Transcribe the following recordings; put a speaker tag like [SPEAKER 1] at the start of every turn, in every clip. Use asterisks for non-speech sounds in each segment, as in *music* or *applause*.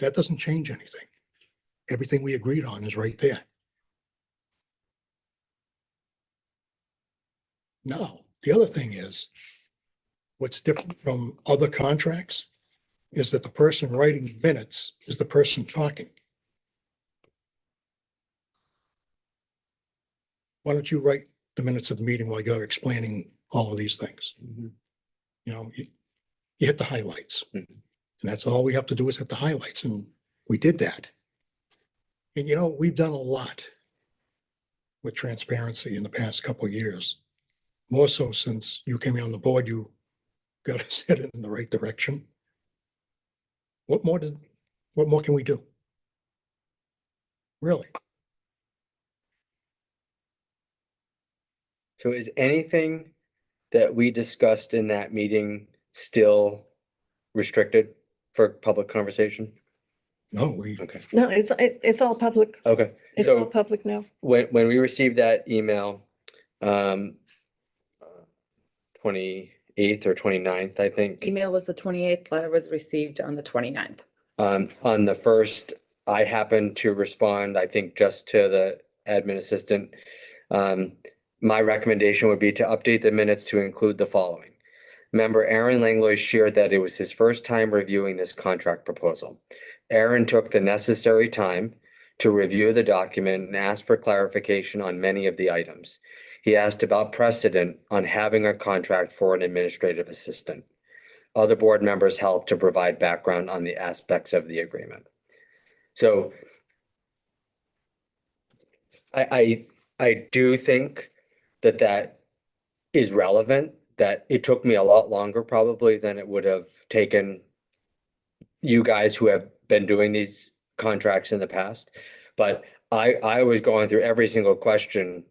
[SPEAKER 1] that doesn't change anything. Everything we agreed on is right there. Now, the other thing is, what's different from other contracts is that the person writing minutes is the person talking. Why don't you write the minutes of the meeting while you're explaining all of these things? You know, you, you hit the highlights. And
[SPEAKER 2] Mhm.
[SPEAKER 1] that's all we have to do is hit the highlights and we did that. And you know, we've done a lot with transparency in the past couple of years. More so since you came on the board, you *laughs* got us headed in the right direction. What more did, what more can we do? Really?
[SPEAKER 2] So is anything that we discussed in that meeting still restricted for public conversation?
[SPEAKER 1] No, we,
[SPEAKER 2] Okay,
[SPEAKER 3] No, it's, it- it's all public.
[SPEAKER 2] okay.
[SPEAKER 3] It's all
[SPEAKER 2] So
[SPEAKER 3] public now.
[SPEAKER 2] when, when we received that email, um, twenty-eighth or 29th, I think,
[SPEAKER 4] Email was the twenty-eighth, letter was received on the 29th.
[SPEAKER 2] um, on the first, I happened to respond, I think, just to the admin assistant. Um, my recommendation would be to update the minutes to include the following. Member Aaron Langlois shared that it was his first time reviewing this contract proposal. Aaron took the necessary time to review the document and asked for clarification on many of the items. He asked about precedent on having a contract for an administrative assistant. Other board members helped to provide background on the aspects of the agreement. So I, I, I do think that that is relevant, that it took me a lot longer probably than it would have taken you guys who have been doing these contracts in the past. But I, I was going through every single question,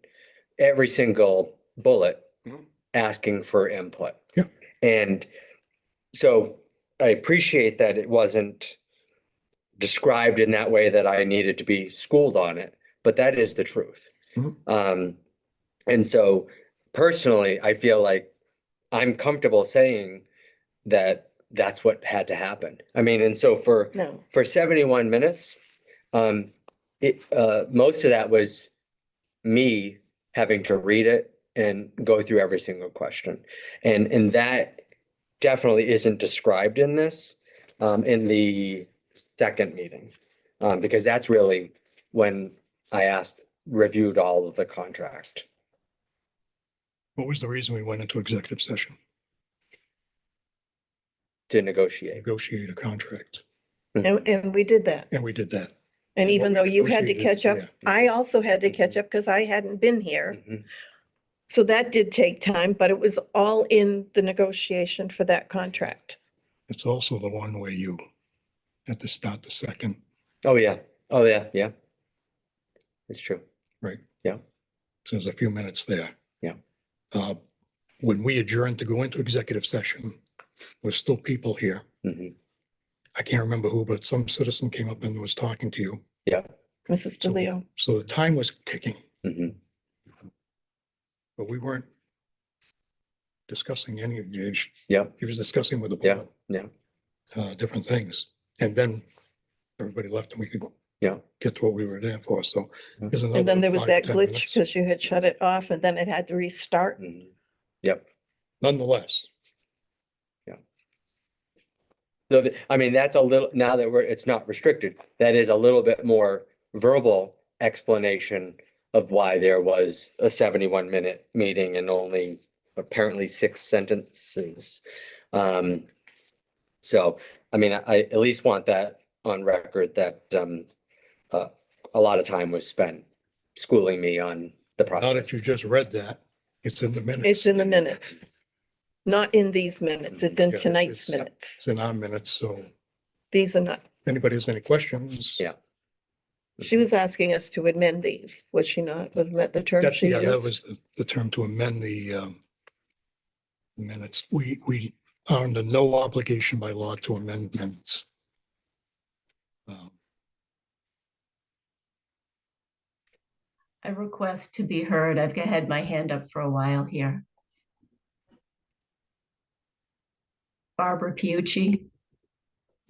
[SPEAKER 2] every single bullet,
[SPEAKER 1] Mhm.
[SPEAKER 2] asking for input.
[SPEAKER 1] Yeah.
[SPEAKER 2] And so I appreciate that it wasn't described in that way that I needed to be schooled on it, but that is the truth.
[SPEAKER 1] Mhm.
[SPEAKER 2] Um, and so personally, I feel like I'm comfortable saying that that's what had to happen. I mean, and so for
[SPEAKER 3] No.
[SPEAKER 2] for 71 minutes. Um, it, uh, most of that was me having to read it and go through every single question. And, and that definitely isn't described in this, um, in the second meeting. Um, because that's really when I asked, reviewed all of the contract.
[SPEAKER 1] what was the reason we went into executive session?
[SPEAKER 2] To negotiate.
[SPEAKER 1] Negotiate a contract.
[SPEAKER 3] And, and we did that.
[SPEAKER 1] And we did that.
[SPEAKER 3] And
[SPEAKER 1] What
[SPEAKER 3] even
[SPEAKER 1] we
[SPEAKER 3] though you had to
[SPEAKER 1] negotiated,
[SPEAKER 3] catch up,
[SPEAKER 2] yeah.
[SPEAKER 3] I also had to catch up because I hadn't been here.
[SPEAKER 2] Mhm.
[SPEAKER 3] So that did take time, but it was all in the negotiation for that contract.
[SPEAKER 1] It's also the one where you had to start the second.
[SPEAKER 2] Oh, yeah. Oh, yeah, yeah. It's true.
[SPEAKER 1] So there's a few minutes there.
[SPEAKER 2] Yeah.
[SPEAKER 1] Uh, When we adjourned to go into executive session, there's still people here.
[SPEAKER 2] Mhm.
[SPEAKER 1] I can't remember who, but some citizen came up and was talking to you.
[SPEAKER 3] Mrs.
[SPEAKER 1] So-
[SPEAKER 3] DeLeo,
[SPEAKER 1] So the time was ticking,
[SPEAKER 2] Mhm.
[SPEAKER 1] but we weren't discussing any of the issue.
[SPEAKER 2] Yeah.
[SPEAKER 1] He was discussing with the
[SPEAKER 2] Yeah,
[SPEAKER 1] board.
[SPEAKER 2] yeah.
[SPEAKER 1] Uh, different things. And then everybody left and we could
[SPEAKER 2] Yeah. Mm-hmm.
[SPEAKER 1] get to what we were there for. So
[SPEAKER 2] Yeah.
[SPEAKER 1] there's another.
[SPEAKER 3] and then there was
[SPEAKER 1] five,
[SPEAKER 3] that
[SPEAKER 1] 10
[SPEAKER 3] glitch
[SPEAKER 1] minutes.
[SPEAKER 3] because you had shut it off and then it had to restart.
[SPEAKER 2] Mhm.
[SPEAKER 1] Nonetheless,
[SPEAKER 2] So, th- I mean, that's a little, now that we're, it's not restricted, that is a little bit more verbal explanation of why there was a seventy-one minute meeting and only apparently six sentences. Um, so, I mean, I, I at least want that on record that, um, uh, a lot of time was spent schooling me on the
[SPEAKER 1] now that
[SPEAKER 2] process.
[SPEAKER 1] you just read that, it's in the minutes.
[SPEAKER 3] It's in the minutes. Not in these minutes, it's in
[SPEAKER 1] Yes,
[SPEAKER 3] tonight's
[SPEAKER 1] it's-
[SPEAKER 3] minutes.
[SPEAKER 1] It's in our minutes, so
[SPEAKER 3] These are not,
[SPEAKER 1] if anybody has any questions?
[SPEAKER 2] Yeah.
[SPEAKER 1] Mm-hmm.
[SPEAKER 3] she was asking us to amend these, was she not? Wasn't that the term
[SPEAKER 1] That,
[SPEAKER 3] she
[SPEAKER 1] yeah, that
[SPEAKER 3] used?
[SPEAKER 1] was the- the term to amend the um, minutes. We, we are under no obligation by law to amend minutes. Um,
[SPEAKER 5] I request to be heard. I've had my hand up for a while here. Barbara Pucci.